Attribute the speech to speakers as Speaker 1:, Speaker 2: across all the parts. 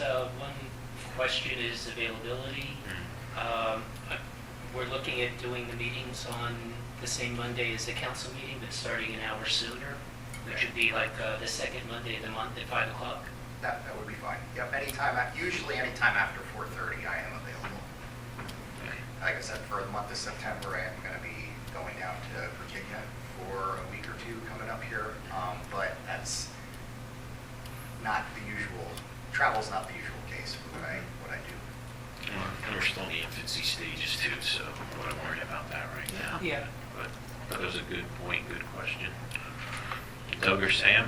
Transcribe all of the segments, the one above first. Speaker 1: uh, question is availability.
Speaker 2: Hmm.
Speaker 1: Um, I- We're looking at doing the meetings on the same Monday as the council meeting, but starting an hour sooner, which would be like uh, the second Monday of the month at 5 o'clock.
Speaker 3: That, that would be fine. Yep, anytime, af- usually anytime after 4:30, I am available. Like I said, for the month of September, I am going to be going down to Virginia for a week or two coming up here, Um, but that's not the usual, travel's not the usual case for what I, what I do.
Speaker 2: And we're- and we're still in the infancy stages too, so I'm not worried about that right now.
Speaker 4: Yeah.
Speaker 2: But that was a good point, good question. Doug or Sam?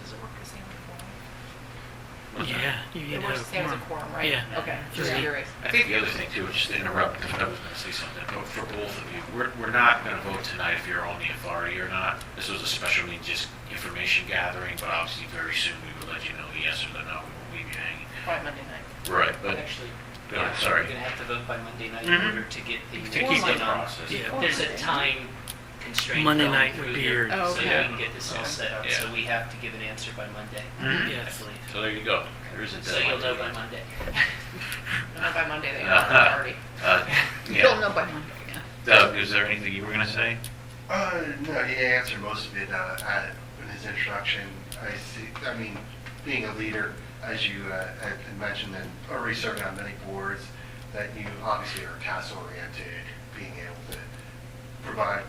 Speaker 4: Does it work the same as
Speaker 5: Yeah, you
Speaker 4: It
Speaker 5: need to
Speaker 4: works the
Speaker 5: have
Speaker 4: same as a
Speaker 5: a
Speaker 4: quorum,
Speaker 5: quorum.
Speaker 4: right?
Speaker 5: Yeah.
Speaker 4: Okay, just
Speaker 5: Yeah.
Speaker 4: curious.
Speaker 2: I think the other thing too, is just to interrupt if I was going to say something, but for both of you, we're, we're not going to vote tonight if you're on the authority or not. This was a special meeting, just information gathering, but obviously very soon we will let you know the yes or the no, we won't leave you hanging.
Speaker 4: Probably Monday night.
Speaker 2: Right, but
Speaker 1: Actually,
Speaker 2: Go
Speaker 1: yeah,
Speaker 2: ahead, sorry.
Speaker 1: we're going to have to vote by Monday night in
Speaker 5: Mm-hmm.
Speaker 2: Mhm.
Speaker 1: order to get the...
Speaker 2: to keep the
Speaker 1: voting on.
Speaker 2: process.
Speaker 5: Yeah.
Speaker 1: There's a time constraint.
Speaker 5: Monday
Speaker 1: going
Speaker 5: night would
Speaker 1: through
Speaker 5: be
Speaker 1: here,
Speaker 5: your-
Speaker 4: Oh,
Speaker 1: So we
Speaker 4: okay.
Speaker 1: can get this all set up,
Speaker 2: Yeah.
Speaker 1: so we have to give an answer by Monday,
Speaker 2: Mhm.
Speaker 1: I
Speaker 5: Yes.
Speaker 1: believe.
Speaker 2: So there you go. There is a
Speaker 1: So you'll
Speaker 2: deadline.
Speaker 1: know by Monday.
Speaker 4: Not by Monday, they
Speaker 2: Uh-huh.
Speaker 4: are already.
Speaker 2: Uh,
Speaker 4: You'll
Speaker 2: Yeah.
Speaker 4: know by Monday, yeah.
Speaker 2: Doug, is there anything you were going to say?
Speaker 6: Uh, no, he answered most of it, uh, at, in his introduction. I see, I mean, being a leader, as you, uh, had had mentioned, and already serving on many boards, that you obviously are task-oriented, being able to provide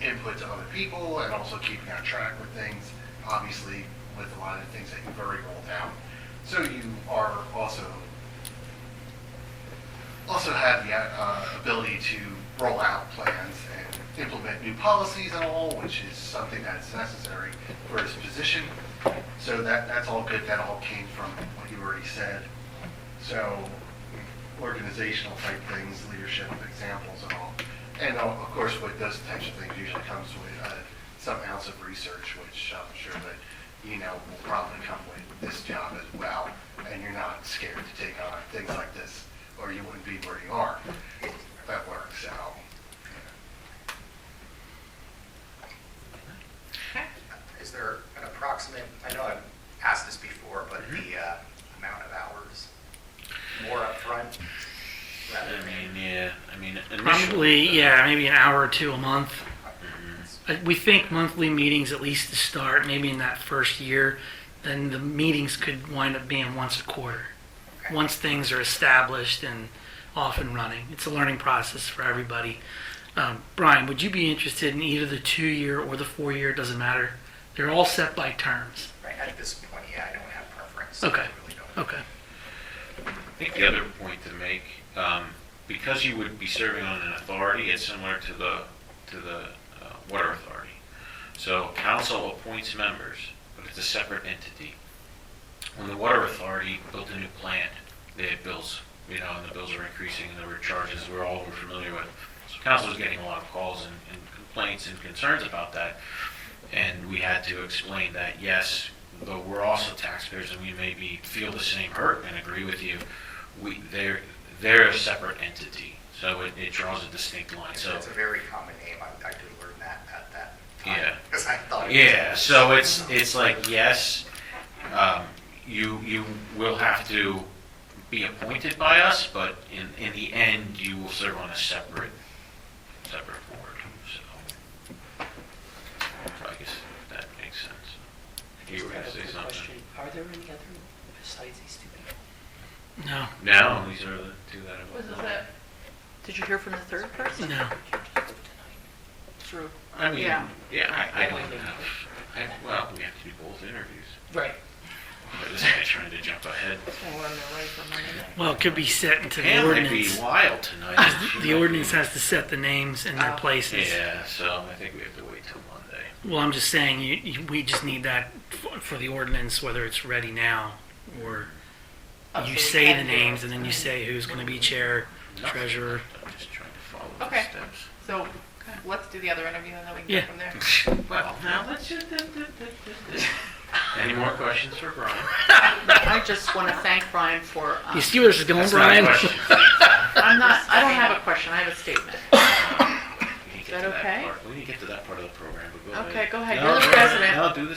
Speaker 6: input to other people and also keeping on track with things, obviously with a lot of the things that you've already rolled out. So you are also, also have the uh, ability to roll out plans and implement new policies and all, which is something that's necessary for his position. So that, that's all good, that all came from what you already said. So organizational type things, leadership examples and all. And uh, of course, with those types of things usually comes with uh, some ounce of research, which I'm sure that, you know, will probably come with this job as well. And you're not scared to take on things like this, or you wouldn't be where you are. If That works out.
Speaker 3: Is there an approximate, I know I've asked this before, but
Speaker 6: Mm-hmm.
Speaker 3: the uh, amount of hours, more upfront rather
Speaker 2: I
Speaker 3: than...
Speaker 2: mean, yeah, I mean, initially. uh,
Speaker 5: Probably, yeah, maybe an hour or two a month.
Speaker 2: Mhm.
Speaker 5: Uh, We think monthly meetings at least to start, maybe in that first year. Then the meetings could wind up being once a quarter,
Speaker 3: Okay.
Speaker 5: once things are established and off and running. It's a learning process for everybody. Um, Brian, would you be interested in either the two-year or the four-year? Doesn't matter. They're all set by terms.
Speaker 3: Right, at this point, yeah, I don't have preference. I
Speaker 5: Okay.
Speaker 3: really don't.
Speaker 5: Okay.
Speaker 2: I think the other point to make, um, because you would be serving on an authority, it's similar to the, to the uh, water authority. So council appoints members, but it's a separate entity. When the water authority built a new plant, they had bills, you know, and the bills were increasing, and there were charges we're all were familiar with. So council was getting a lot of calls and and complaints and concerns about that. And we had to explain that, yes, though we're also taxpayers and we maybe feel the same hurt and agree with you, we, they're, they're a separate entity. So it, it draws a distinct line. So,
Speaker 3: It's a very common name, I, I did learn that at that time.
Speaker 2: Yeah.
Speaker 3: Because I thought. it was-
Speaker 2: yeah, so it's, it's like, yes, um, you, you will have to be appointed by us, but in, in the end, you will serve on a separate, separate board, so. So I guess that makes sense. You were gonna say
Speaker 1: Quick
Speaker 2: something.
Speaker 1: question. Are there any other besides these two people?
Speaker 5: No.
Speaker 2: No, these are the two that
Speaker 4: Was
Speaker 2: I
Speaker 4: this it? Did you hear from the third person?
Speaker 5: No.
Speaker 4: True.
Speaker 2: I mean,
Speaker 4: Yeah.
Speaker 2: yeah, I, I don't have, I, well, we have to do both interviews.
Speaker 4: Right.
Speaker 2: But this guy's trying to jump ahead.
Speaker 4: Well, we're on the way for Monday night.
Speaker 5: Well, it could be set into the
Speaker 2: Pam might be
Speaker 5: ordinance.
Speaker 2: wild tonight.
Speaker 5: The ordinance has to set the names and their
Speaker 4: Oh.
Speaker 5: places.
Speaker 2: Yeah, so I think we have to wait till Monday.
Speaker 5: Well, I'm just saying, you, you, we just need that for, for the ordinance, whether it's ready now or
Speaker 4: Oh, so
Speaker 5: you
Speaker 4: we
Speaker 5: say
Speaker 4: can
Speaker 5: the
Speaker 4: do it.
Speaker 5: names and then you say who's going to be chair,
Speaker 2: Nothing.
Speaker 5: treasurer.
Speaker 2: I'm just trying to follow the
Speaker 4: Okay.
Speaker 2: steps.
Speaker 4: So let's do the other interview and then we can
Speaker 5: Yeah.
Speaker 4: go from there.
Speaker 2: Well, now let's. do- do- do- do- do- do. Any more questions for Brian?
Speaker 7: I just want to thank Brian for,
Speaker 4: Uh,
Speaker 7: um,
Speaker 5: You see where this is going,
Speaker 2: That's not a
Speaker 5: Brian?
Speaker 2: question.
Speaker 4: I'm not, I don't have a question, I have a statement.
Speaker 2: We need to
Speaker 4: Is
Speaker 2: get to
Speaker 4: that okay?
Speaker 2: part. We need to get to that part of the program, but go ahead.
Speaker 4: Okay, go ahead.
Speaker 2: No,
Speaker 4: You're the
Speaker 2: no, no,
Speaker 4: president.
Speaker 2: No, do the